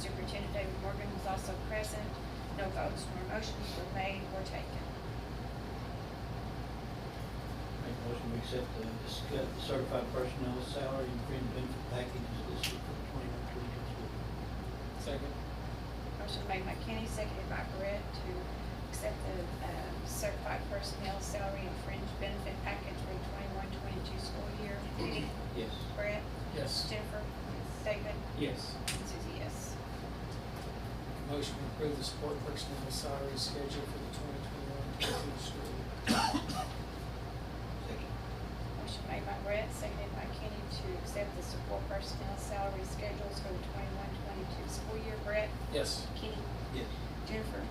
David Morgan was also present. No votes nor motions were made or taken. Make a motion, we accept the discuss, the certified personnel salary and fringe benefit package is listed for the twenty-one, twenty-two school year. Second. Motion made by Kenny, seconded by Brett to accept the uh, certified personnel salary and fringe benefit package for the twenty-one, twenty-two school year. Kenny? Yes. Brett? Yes. Jennifer? David? Yes. And Susie, yes. Motion to approve the support personnel salary schedule for the twenty twenty-one, twenty-two school year. Second. Motion made by Brett, seconded by Kenny to accept the support personnel salary schedules for the twenty-one, twenty-two school year. Brett? Yes. Kenny? Yes. Jennifer?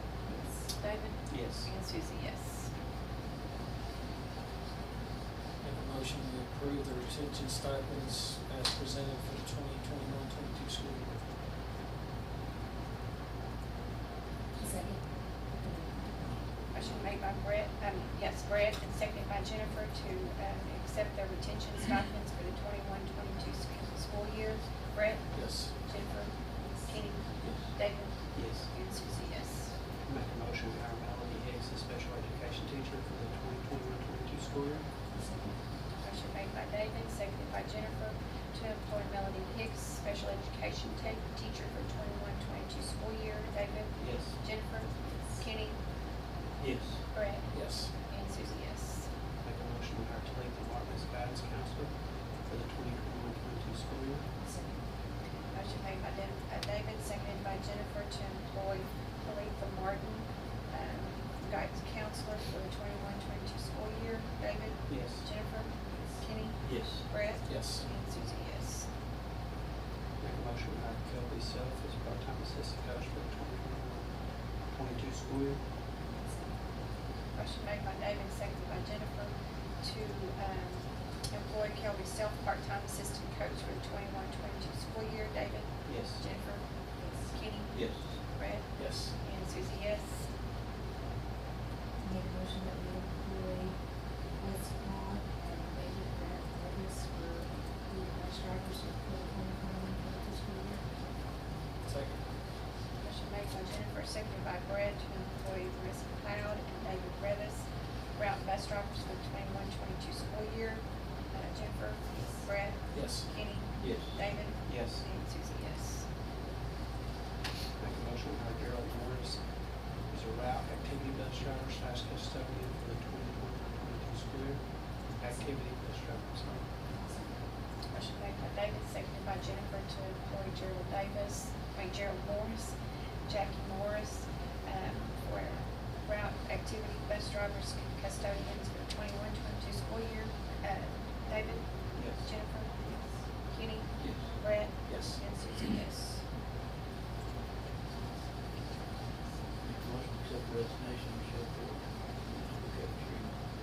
David? Yes. And Susie, yes. Make a motion to approve the retention stipends as presented for the twenty twenty-one, twenty-two school year. Second. Motion made by Brett, um, yes, Brett, and seconded by Jennifer to, um, accept the retention stipends for the twenty-one, twenty-two sch- school year. Brett, Yes. Jennifer, Kenny, David, and Susie, yes. Make a motion to hire Melanie Hicks as special education teacher for the 2021-22 school year. Motion made by David, seconded by Jennifer to employ Melody Hicks, special education te- teacher for twenty-one, twenty-two school year. David, Yes. Jennifer, Kenny, Yes. Brett, Yes. and Susie, yes. Make a motion to hire Talitha Martin as guidance counselor for the 2021-22 school year. Motion made by Dan- uh, David, seconded by Jennifer to employ Talitha Martin, um, guidance counselor for the twenty-one, twenty-two school year. David, Yes. Jennifer, Kenny, Yes. Brett, Yes. and Susie, yes. Make a motion to hire Kelby Self as part-time assistant coach for the 2021-22 school year. Motion made by David, seconded by Jennifer, to um, employ Kelby Self, part-time assistant coach for the 21-22 school year. David, Yes. Jennifer, Kenny, Yes. Brett, Yes. and Susie, yes. Make a motion that we employ Liz Vaughn and David Grant Davis for the bus drivers of the twenty twenty-one, twenty-two school year. Second. Motion made by Jennifer, seconded by Brett, to employ Marissa McLeod and David Revis, route bus drivers for the 21-22 school year. Uh, Jennifer, Brett, Yes. Kenny, Yes. David, Yes. and Susie, yes. Make a motion to hire Gerald Morris as a route activity bus driver slash custodian for the 2021-22 school year. Activity bus driver, sorry. Motion made by David, seconded by Jennifer to employ Gerald Davis, I mean Gerald Morris, Jackie Morris, um, for route activity bus drivers custodians for twenty-one, twenty-two school year. Uh, David, Yes. Jennifer, Kenny, Yes. Brett, Yes. and Susie, yes. Make a motion, to accept the resignation of Michelle Ford.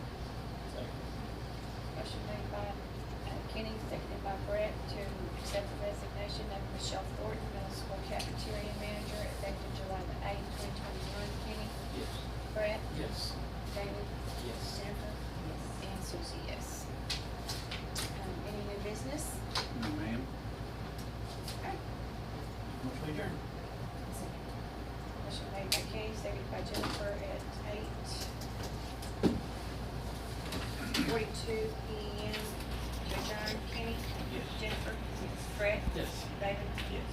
Second. Motion made by uh, Kenny, seconded by Brett to accept the resignation of Michelle Thornton, middle school cafeteria manager, effective July the eighth, twenty twenty-one. Kenny, Yes. Brett, Yes. David, Yes. Jennifer? And Susie, yes. Um, Any new business? Ma'am. Okay. Motion to adjourn. Second. Motion made by Kenny, seconded by Jennifer at eight forty-two P M. To adjourn, Kenny? Yes. Jennifer? Brett? Yes. David? Yes.